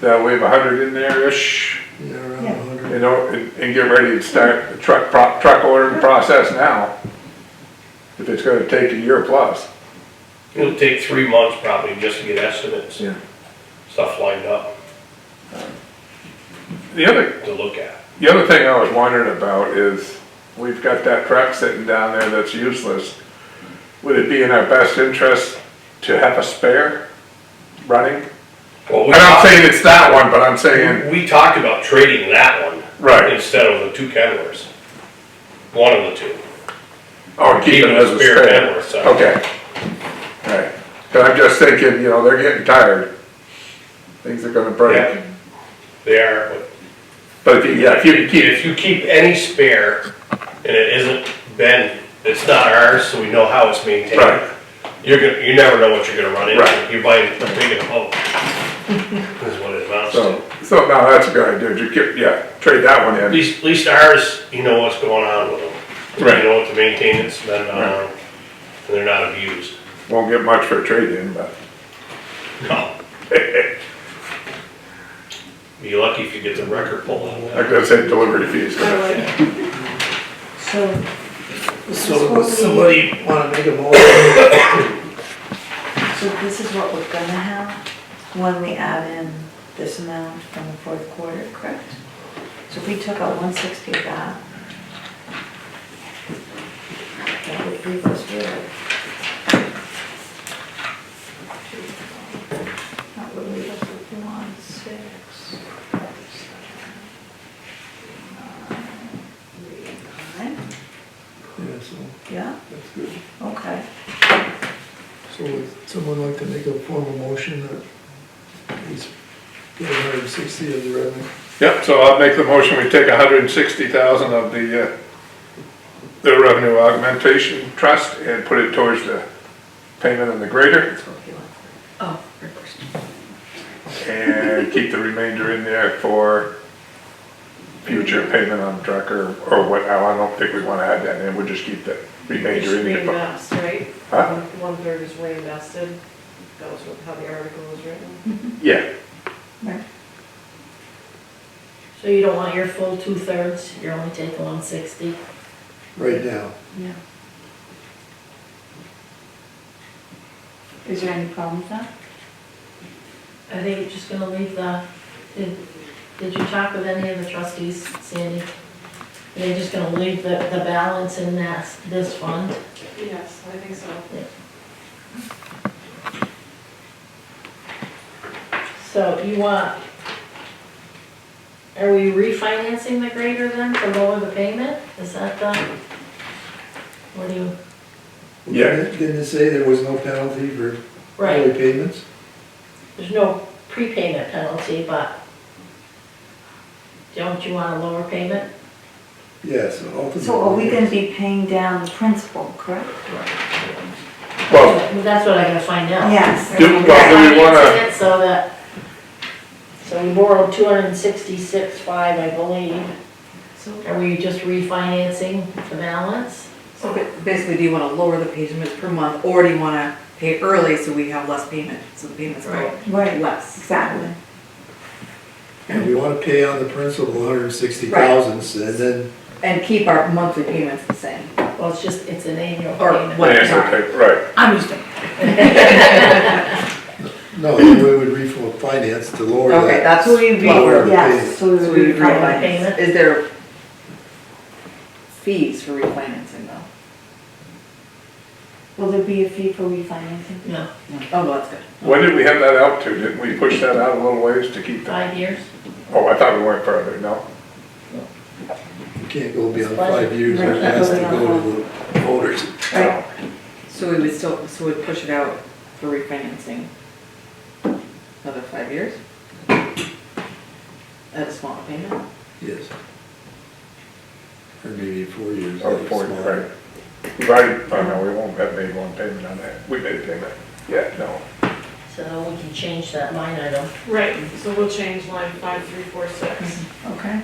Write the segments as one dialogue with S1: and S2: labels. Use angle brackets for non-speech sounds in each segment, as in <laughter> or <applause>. S1: that we have a hundred in there-ish,
S2: Yeah, around
S3: Yeah.
S2: a hundred.
S1: you know, and, and get ready to start the truck, pro- truck ordering process now. If it's gonna take a year plus.
S4: It'll take three months probably just to get estimates and stuff lined up
S1: The other,
S4: to look at.
S1: the other thing I was wondering about is, we've got that truck sitting down there that's useless. Would it be in our best interest to have a spare running?
S4: Well,
S1: I'm
S4: we
S1: not
S4: talked-
S1: saying it's that one, but I'm saying,
S4: We talked about trading that one.
S1: Right.
S4: Instead of the two Kenworths. One of the two.
S1: oh, keep it
S4: Keeping
S1: as
S4: a
S1: a
S4: spare
S1: spare.
S4: Kenworth, so.
S1: Okay. Alright, but I'm just thinking, you know, they're getting tired. Things are gonna break.
S4: Yeah. They are, but
S1: But if you, yeah, if you can keep,
S4: if you keep any spare and it isn't been, it's not ours, so we know how it's maintained.
S1: Right.
S4: You're gonna, you never know what you're gonna run
S1: Right.
S4: into. You buy a big and whole. <laughs> Is what it amounts to.
S1: so, so no, that's a good idea, just keep, yeah, trade that one
S4: At
S1: in.
S4: least, at least ours, you know what's going on with them.
S1: Right.
S4: You know what the maintenance has been on, and they're not abused.
S1: Won't get much for a trade-in, but.
S4: No. <laughs> Be lucky if you get the record pulled on
S1: Like
S4: that.
S1: I said, delivery fees.
S3: So, this is
S2: So
S3: what we,
S2: does
S3: so
S2: somebody wanna make a motion?
S3: this is what we're gonna have when we add in this amount from the fourth quarter, correct? So if we took out one sixty of that, that would leave us with. That would leave us with one six. Nine, nine,
S2: Yeah, so,
S3: yeah,
S2: that's good.
S3: okay.
S2: So would someone like to make a formal motion that he's get hundred and sixty of the revenue?
S1: Yep, so I'll make the motion, we take hundred and sixty thousand of the, uh, the revenue augmentation trust and put it towards the payment on the grader
S3: Oh, reversed.
S1: and keep the remainder in there for future payment on truck or, or what, I don't think we wanna add that in, we'll just keep the
S5: It's
S1: remainder in there. but-
S5: reinvest, right?
S1: Huh?
S5: One- One-third is reinvested, that was what- how the article was written.
S1: Yeah,
S6: So you don't want your full two-thirds, you're only taking one sixty?
S2: Right now,
S3: Yeah. Is there any problem with that?
S6: I think you're just gonna leave the, did, did you talk with any of the trustees, Sandy? They're just gonna leave the, the balance in that, this fund?
S5: Yes, I think so.
S6: So you want, are we refinancing the grader then to lower the payment? Is that the, what do you,
S1: Yeah.
S2: didn't didn't it say there was no penalty for early
S6: right,
S2: payments?
S6: there's no prepayment penalty, but don't you want a lower payment?
S2: Yeah, so ultimately.
S3: So are we gonna be paying down the principal, correct?
S1: well,
S6: That's what I gotta find out.
S3: Yes.
S1: Do- well, do we wanna-
S6: Financing it So that, so we borrowed two hundred and sixty-six five, I believe.
S3: So,
S6: Are we just refinancing the balance?
S7: So ba- basically, do you wanna lower the payments per month, or do you wanna pay early so we have less payment, so the payments go
S3: right,
S7: less?
S3: exactly.
S2: And we wanna pay on the principal hundred and sixty thousand, and then,
S7: And keep our monthly payments the same,
S6: Well, it's just, it's an annual
S7: or
S6: payment.
S1: yeah,
S7: what, sorry.
S1: okay, right,
S7: I'm just, okay,
S2: no, then we would refinance to lower that.
S7: that's.
S3: So we, re-
S2: Lower the
S3: yes, so
S7: So
S3: we
S7: we
S3: refinance.
S7: refinance, is there fees for refinancing though?
S3: Will there be a fee for refinancing?
S6: No,
S7: Oh, well, that's good.
S1: when did we have that out to, didn't we push that out a little ways to keep the,
S6: five years?
S1: oh, I thought we went further, no?
S2: You can't go beyond five years,
S3: Right,
S2: it has to
S3: that's what we
S2: go to the voters.
S3: Right.
S7: So we would still, so we'd push it out for refinancing another five years? At a smaller payment?
S2: Yes. Or maybe four years.
S1: Or
S2: that's
S1: four,
S2: small.
S1: right. We've already, oh no, we won't have made one payment on that. We made a payment. Yeah, no.
S6: So we can change that line item.
S5: Right, so we'll change line five, three, four, six.
S7: Mm-hmm.
S3: Okay.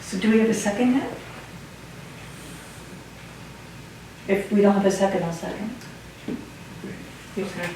S3: So do we have a second now? If we don't have a second, I'll second.
S5: Okay.